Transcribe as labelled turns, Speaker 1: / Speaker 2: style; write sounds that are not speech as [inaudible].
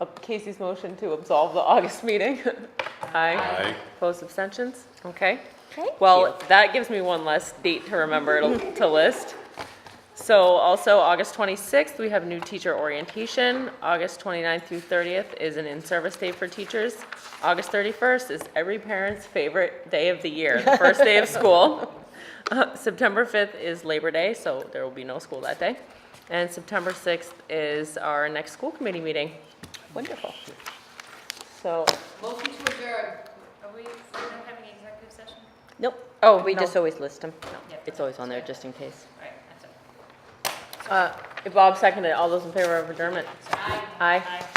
Speaker 1: Uh, Casey's motion to absolve the August meeting. [laughs] Aye.
Speaker 2: Aye.
Speaker 1: Opposed, abstentions? Okay.
Speaker 3: Thank
Speaker 1: Well, that gives me one less date to remember to to list. So also, August 26th, we have new teacher orientation. August 29th through 30th is an in-service day for teachers. August 31st is every parent's favorite day of the year, the first day of school. Uh, September 5th is Labor Day, so there will be no school that day. And September 6th is our next school committee meeting. Wonderful. So,
Speaker 4: Motion to adjourn. Are we, we're not having an executive session?
Speaker 3: Nope.
Speaker 1: Oh,
Speaker 3: We
Speaker 1: no.
Speaker 3: just always list them.
Speaker 4: Yep.
Speaker 3: It's always on there, just in case.
Speaker 4: All right, that's
Speaker 1: uh,
Speaker 4: it.
Speaker 1: Bob seconded, all those in favor of adjournment?
Speaker 4: So, aye.
Speaker 1: Aye.
Speaker 4: Aye.